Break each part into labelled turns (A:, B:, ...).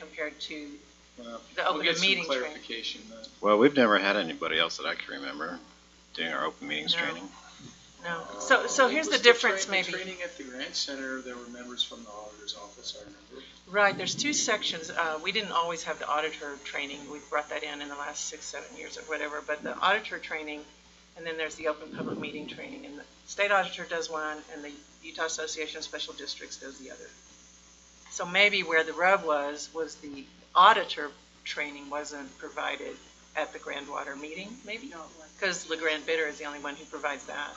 A: compared to
B: Well,
A: the
B: We'll
A: open
B: get some
A: meeting training.
B: clarification then.
C: Well, we've never had anybody else that I can remember doing our open meetings
A: No.
C: training.
A: No, so, so
B: uh, It
A: here's the
B: was tra-
A: difference
B: the
A: maybe.
B: Training at the Grand Center, there were members from the auditor's office, I remember.
A: Right, there's two sections. Uh, We didn't always have the auditor training. We've brought that in in the last six, seven years or whatever, but the auditor training, and then there's the open public meeting training. And the state auditor does one, and the Utah Association of Special Districts does the other. So maybe where the rub was, was the auditor training wasn't provided at the Grand Water meeting, maybe? Because the Grand Bidder is the only one who provides that.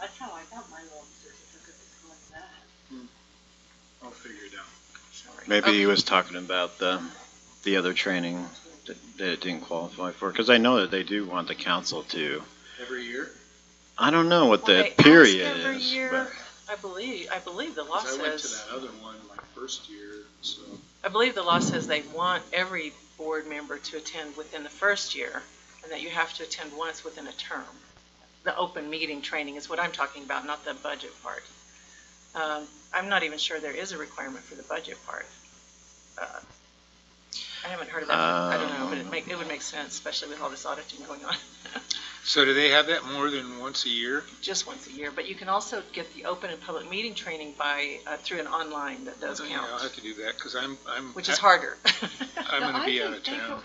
D: That's how I got my law certificate, it's going back.
B: I'll figure it out.
A: Sorry.
C: Maybe
A: Okay.
C: he was talking about the, the other training that, that it didn't qualify for, because I know that they do want the council to.
B: Every year?
C: I don't know what
A: Well,
C: the
A: they ask
C: period
A: every
C: is,
A: year.
C: but
A: I believe, I believe the law
B: 'Cause I went to
A: says,
B: that other one my first year, so.
A: I believe the law says they want every board member to attend within the first year, and that you have to attend once within a term. The open meeting training is what I'm talking about, not the budget part. Um, I'm not even sure there is a requirement for the budget part. Uh, I haven't heard about it, I don't know,
C: Um,
A: but it make, it would make sense, especially with all this auditing going on,
E: So do they have that more than once a year?
A: just once a year. But you can also get the open and public meeting training by, uh, through an online that does
E: Yeah, I'll have
A: count,
E: to do that, because I'm, I'm.
A: which is harder.
E: I'm gonna be out of town.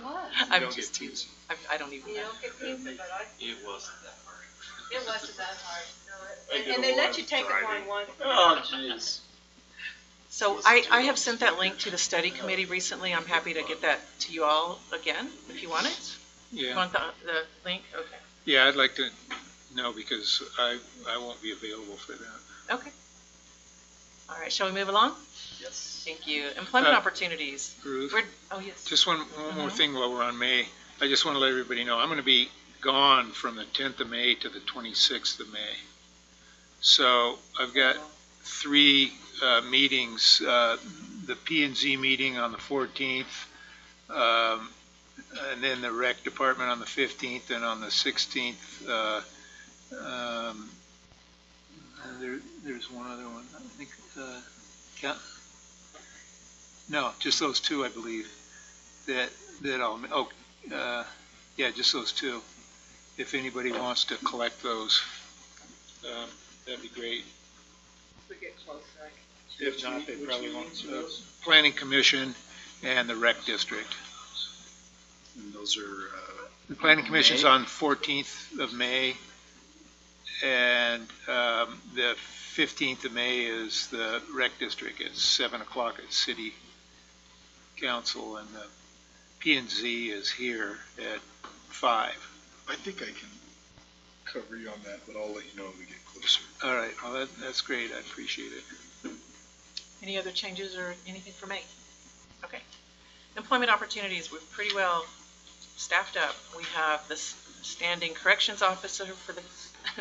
A: I'm
B: don't
A: just
B: get pizza.
A: teasing. I, I don't even
D: You
A: know.
D: don't get pizza, but I,
F: It wasn't that hard.
D: it wasn't that hard, no.
F: I
D: And-
F: did
D: And they
F: a
D: let
F: lot
D: you take it
F: Friday.
D: one once.
B: Oh, jeez.
A: So I, I have sent that link to the study committee recently. I'm happy to get that to you all again if you want it. You
E: Yeah,
A: want the, the link? Okay.
E: yeah, I'd like to know, because I, I won't be available for that.
A: Okay. All right, shall we move along?
B: Yes.
A: Thank you. Employment
E: Uh,
A: opportunities.
E: Ruth,
A: We're, oh, yes.
E: just one, one more
A: Mhm.
E: thing while we're on May. I just want to let everybody know, I'm gonna be gone from the tenth of May to the twenty-sixth of May. So I've got three uh, meetings, uh, the P and Z meeting on the 14th, um, and then the rec department on the 15th, and on the 16th, uh, um, uh, there, there's one other one, I think, uh, ca- no, just those two, I believe, that, that I'll, oh, uh, yeah, just those two. If anybody wants to collect those, um, that'd be great.
D: We get closer, I can
E: If not, they probably won't. Planning Commission and the Rec District.
B: And those are, uh,
E: The Planning Commission's
B: May?
E: on 14th of May, and um, the 15th of May is the Rec District. It's 7 o'clock at City Council, and the P and Z is here at 5.
B: I think I can cover you on that, but I'll let you know when we get closer.
E: All right, well, that- that's great, I appreciate it.
A: Any other changes or anything for me? Okay. Employment opportunities, we're pretty well staffed up. We have the s- standing corrections officer for the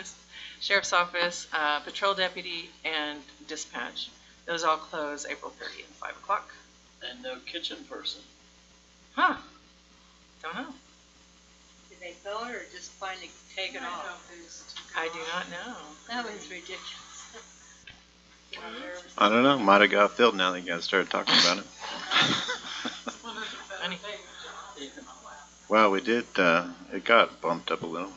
A: sheriff's office, uh, patrol deputy, and dispatch. Those all close April 30th, 5 o'clock.
F: And no kitchen person.
A: Huh? Don't know.
D: Did they fill it or just finally take it off?
A: I do not know.
D: That was ridiculous.
C: I don't know, might have got filled now that you guys started talking about it.
A: Funny.
C: Well, we did, uh, it got bumped up a little.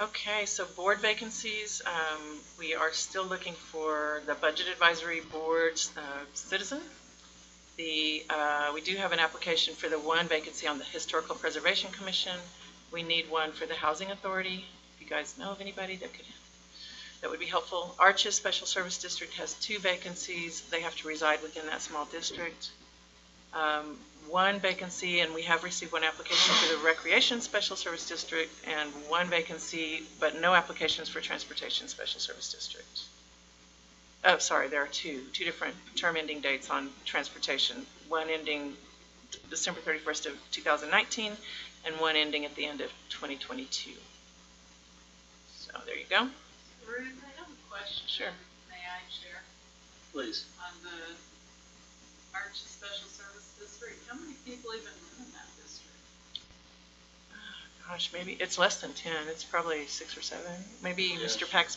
A: Okay, so board vacancies, um, we are still looking for the Budget Advisory Board's uh, citizen. The, uh, we do have an application for the one vacancy on the Historical Preservation Commission. We need one for the Housing Authority. If you guys know of anybody that could, that would be helpful. Arches Special Service District has two vacancies. They have to reside within that small district. Um, One vacancy, and we have received one application for the Recreation Special Service District and one vacancy, but no applications for Transportation Special Service District. Oh, sorry, there are two, two different term ending dates on transportation. One ending December 31st of 2019 and one ending at the end of 2022. So there you go.
D: Ruth, I have a question.
A: Sure.
D: May I share?
F: Please.
D: On the Arches Special Service District, how many people even live in that district?
A: Gosh, maybe, it's less than 10, it's probably six or seven. Maybe Mr. Pax